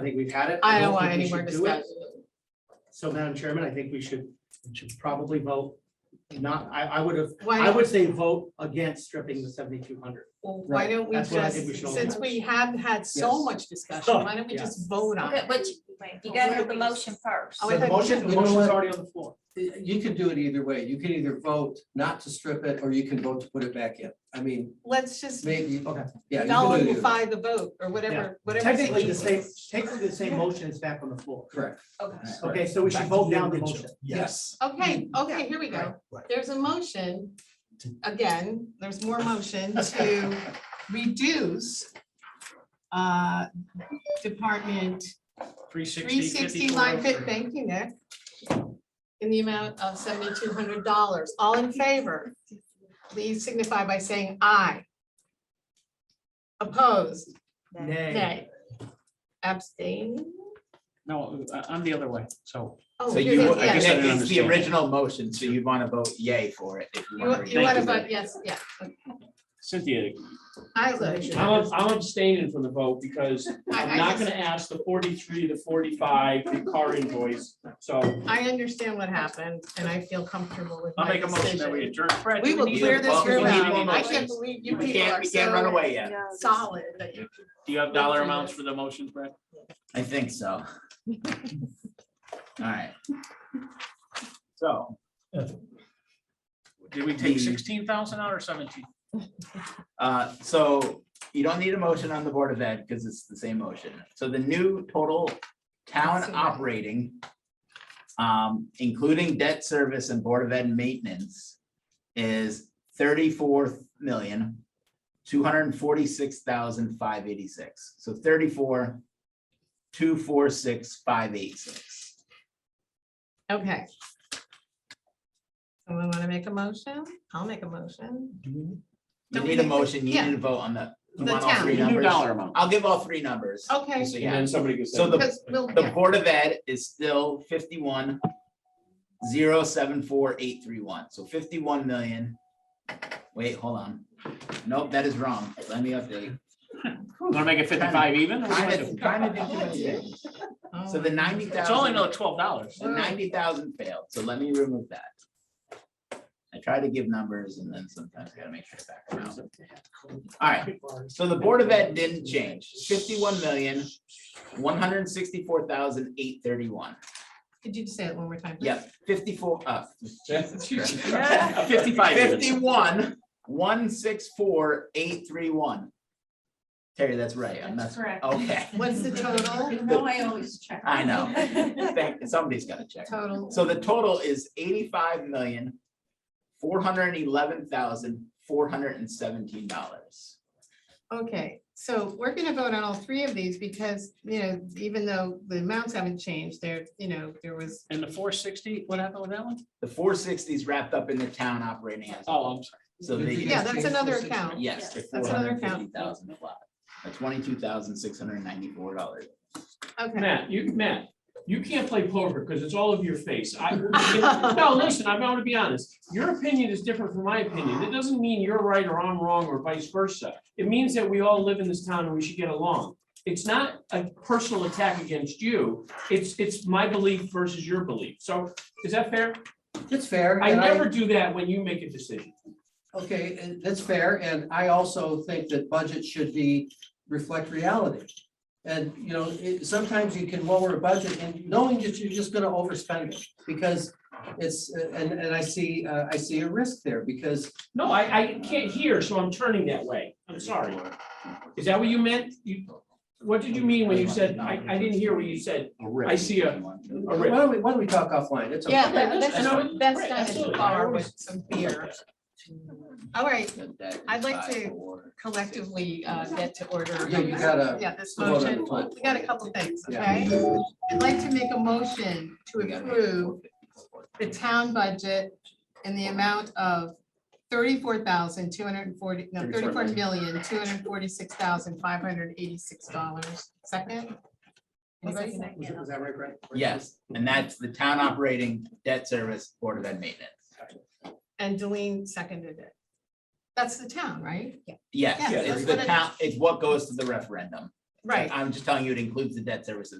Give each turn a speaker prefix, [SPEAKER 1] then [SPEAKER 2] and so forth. [SPEAKER 1] think we've had it.
[SPEAKER 2] I
[SPEAKER 1] don't
[SPEAKER 2] don't want
[SPEAKER 1] think we
[SPEAKER 2] any more
[SPEAKER 1] should do it.
[SPEAKER 2] discussion.
[SPEAKER 1] So Madam Chairman, I think we should, should probably vote not, I, I would have, I
[SPEAKER 2] Why,
[SPEAKER 1] would say vote against stripping the seventy-two hundred.
[SPEAKER 2] why
[SPEAKER 1] Right,
[SPEAKER 2] don't we
[SPEAKER 1] that's what I think we
[SPEAKER 2] just,
[SPEAKER 1] should all
[SPEAKER 2] since
[SPEAKER 1] do.
[SPEAKER 2] we have had so
[SPEAKER 1] Yes. Oh,
[SPEAKER 2] much discussion, why don't we
[SPEAKER 1] Yeah.
[SPEAKER 2] just vote on
[SPEAKER 3] Okay,
[SPEAKER 2] it?
[SPEAKER 3] but you- you gotta do the motion first.
[SPEAKER 2] Oh,
[SPEAKER 1] So
[SPEAKER 2] I
[SPEAKER 1] the
[SPEAKER 2] thought-
[SPEAKER 1] motion, the
[SPEAKER 4] You know
[SPEAKER 1] motion's
[SPEAKER 4] what?
[SPEAKER 1] already on the floor.
[SPEAKER 4] You can do it either way. You can either vote not to strip it, or you can vote to put it back in. I mean,
[SPEAKER 2] Let's just
[SPEAKER 4] maybe, oh,
[SPEAKER 1] Okay.
[SPEAKER 4] yeah. you can do it either way.
[SPEAKER 2] nullify the vote or whatever, whatever.
[SPEAKER 1] Technically, the same,
[SPEAKER 2] situation.
[SPEAKER 1] technically, the same motion is back on the floor.
[SPEAKER 4] Correct.
[SPEAKER 3] Okay.
[SPEAKER 1] Okay, so we should
[SPEAKER 5] Back to
[SPEAKER 1] vote down the
[SPEAKER 5] original.
[SPEAKER 1] motion.
[SPEAKER 5] Yes.
[SPEAKER 2] Okay, okay, here we go.
[SPEAKER 1] Right,
[SPEAKER 5] right.
[SPEAKER 2] There's a motion, again, there's more motion to reduce uh, Department
[SPEAKER 6] Three sixty.
[SPEAKER 2] three sixty line fit, thank you, Nick, in the amount of seventy-two hundred dollars. All in favor? Please signify by saying aye. Opposed,
[SPEAKER 1] Nay.
[SPEAKER 2] nay. Abstain?
[SPEAKER 6] No, I- I'm the other way, so.
[SPEAKER 2] Oh,
[SPEAKER 7] So
[SPEAKER 2] you're
[SPEAKER 7] you,
[SPEAKER 2] the-
[SPEAKER 7] I
[SPEAKER 2] yes.
[SPEAKER 7] guess
[SPEAKER 6] I didn't
[SPEAKER 7] it's the
[SPEAKER 6] understand.
[SPEAKER 7] original motion, so you'd want to vote yay for it if you want
[SPEAKER 2] You
[SPEAKER 7] to.
[SPEAKER 2] want to
[SPEAKER 6] you.
[SPEAKER 2] vote, yes, yeah.
[SPEAKER 6] Cynthia.
[SPEAKER 2] I look,
[SPEAKER 6] I'm, I'm abstaining from the vote because I'm
[SPEAKER 2] I, I
[SPEAKER 6] not
[SPEAKER 2] just,
[SPEAKER 6] gonna ask the forty-three, the forty-five, the car invoice, so.
[SPEAKER 2] I understand what happened and I feel comfortable with my decision.
[SPEAKER 6] adjourn.
[SPEAKER 2] We will clear this
[SPEAKER 7] well, we
[SPEAKER 2] room
[SPEAKER 7] need
[SPEAKER 2] out.
[SPEAKER 7] more
[SPEAKER 2] I can't
[SPEAKER 7] motions.
[SPEAKER 2] believe you
[SPEAKER 7] You
[SPEAKER 2] people
[SPEAKER 7] can't,
[SPEAKER 2] are
[SPEAKER 7] you can't run
[SPEAKER 2] so
[SPEAKER 7] away yet.
[SPEAKER 2] solid that you
[SPEAKER 6] Do you have dollar amounts for the motions, Brad?
[SPEAKER 7] I think so. All right. So.
[SPEAKER 6] Did we take sixteen thousand out or seventeen?
[SPEAKER 7] Uh, so you don't need a motion on the Board of Ed because it's the same motion. So the new total town operating, um, including debt service and Board of Ed maintenance is thirty-four million, two hundred and forty-six thousand, five eighty-six. So thirty-four, two, four, six, five, eight, six.
[SPEAKER 2] Okay. Someone want to make a motion? I'll make a motion.
[SPEAKER 7] You
[SPEAKER 2] Don't
[SPEAKER 7] need a
[SPEAKER 2] we-
[SPEAKER 7] motion, you
[SPEAKER 2] yeah.
[SPEAKER 7] need to vote on the, you
[SPEAKER 2] The
[SPEAKER 7] want all
[SPEAKER 2] town.
[SPEAKER 7] three
[SPEAKER 6] We do
[SPEAKER 7] numbers?
[SPEAKER 6] dollar amount.
[SPEAKER 7] I'll give all three numbers.
[SPEAKER 2] Okay.
[SPEAKER 7] So
[SPEAKER 6] And
[SPEAKER 7] yeah.
[SPEAKER 6] then somebody could say.
[SPEAKER 7] So the-
[SPEAKER 2] Because we'll,
[SPEAKER 7] The
[SPEAKER 2] yeah,
[SPEAKER 7] Board of Ed is still fifty-one, zero, seven, four, eight, three, one, so fifty-one million. Wait, hold on. Nope, that is wrong. Let me update.
[SPEAKER 6] Wanna make it fifty-five even? or what do you
[SPEAKER 7] Kinda-
[SPEAKER 6] wanna do?
[SPEAKER 7] kinda did do it today. So the ninety thousand.
[SPEAKER 6] It's only another twelve dollars.
[SPEAKER 2] Oh.
[SPEAKER 7] The ninety thousand failed, so let me remove that. I try to give numbers and then sometimes I gotta make sure it's back around. All right, so the Board of Ed didn't change, fifty-one million, one hundred and sixty-four thousand, eight, thirty-one.
[SPEAKER 2] could you just say it one more time? please?
[SPEAKER 7] Yep, fifty-four, uh,
[SPEAKER 2] Ah,
[SPEAKER 6] Fifty-five. even.
[SPEAKER 7] fifty-one, one, six, four, eight, three, one. Terry, that's right, I'm not,
[SPEAKER 3] correct.
[SPEAKER 7] okay,
[SPEAKER 2] What's the total?
[SPEAKER 3] You know, I always check.
[SPEAKER 7] I know. Thank- somebody's gotta check.
[SPEAKER 2] Total.
[SPEAKER 7] So the total is eighty-five million, four hundred and eleven thousand, four hundred and seventeen dollars.
[SPEAKER 2] Okay, so we're gonna vote on all three of these because, you know, even though the amounts haven't changed, there, you know, there was
[SPEAKER 6] And the four sixty, what happened with that one?
[SPEAKER 7] The four sixties wrapped up in the town operating as,
[SPEAKER 6] Oh, I'm sorry.
[SPEAKER 7] so they,
[SPEAKER 2] Yeah, that's another account.
[SPEAKER 7] yes, the
[SPEAKER 2] That's another
[SPEAKER 7] four hundred and
[SPEAKER 2] account.
[SPEAKER 7] fifty thousand, a twenty-two thousand, six hundred and ninety-four dollars.
[SPEAKER 2] Okay,
[SPEAKER 6] Matt, you, Matt, you can't play poker because it's all of your face. I, no, listen, I'm going to be honest. Your opinion is different from my opinion. It doesn't mean you're right or I'm wrong or vice versa. It means that we all live in this town and we should get along. It's not a personal attack against you. It's, it's my belief versus your belief. So is that fair?
[SPEAKER 4] It's fair.
[SPEAKER 6] I
[SPEAKER 4] and
[SPEAKER 6] never do that when you make a decision.
[SPEAKER 4] Okay, and that's fair, and I also think that budgets should be, reflect reality. And, you know, it, sometimes you can lower a budget and knowing that you're just gonna overspend it, because it's, and, and I see, uh, I see a risk there, because
[SPEAKER 6] No, I, I can't hear, so I'm turning that way. I'm sorry. Is that what you meant? You, what did you mean when you said, I, I didn't hear what you said? I see a, a
[SPEAKER 4] why
[SPEAKER 6] rip.
[SPEAKER 4] don't we, why don't we talk offline, it's okay.
[SPEAKER 2] yeah,
[SPEAKER 6] Yeah,
[SPEAKER 2] that's,
[SPEAKER 6] that's- I know.
[SPEAKER 2] that's
[SPEAKER 6] Right,
[SPEAKER 2] not a
[SPEAKER 6] absolutely.
[SPEAKER 2] bar with some beer. All right, I'd like to- collectively uh, get to order.
[SPEAKER 4] Yeah, you gotta
[SPEAKER 2] Yeah, this
[SPEAKER 4] vote on
[SPEAKER 2] motion,
[SPEAKER 4] the plan.
[SPEAKER 2] we got a couple things,
[SPEAKER 4] Yeah.
[SPEAKER 2] okay? I'd like to make a motion to approve the town budget in the amount of thirty-four thousand, two hundred and forty, no, thirty-four million, two hundred and forty-six thousand, five hundred and eighty-six dollars. Second? Anybody?
[SPEAKER 1] Was it- was that right, Brett?
[SPEAKER 7] Yes, and that's the town operating debt service, Board of Ed maintenance.
[SPEAKER 2] And Delene seconded it. That's the town, right? Yeah.
[SPEAKER 7] Yes,
[SPEAKER 2] Yeah,
[SPEAKER 7] it's
[SPEAKER 2] that's
[SPEAKER 7] the
[SPEAKER 2] what I-
[SPEAKER 7] town, it's what goes to the referendum.
[SPEAKER 2] Right.
[SPEAKER 7] I'm just telling you, it includes the debt service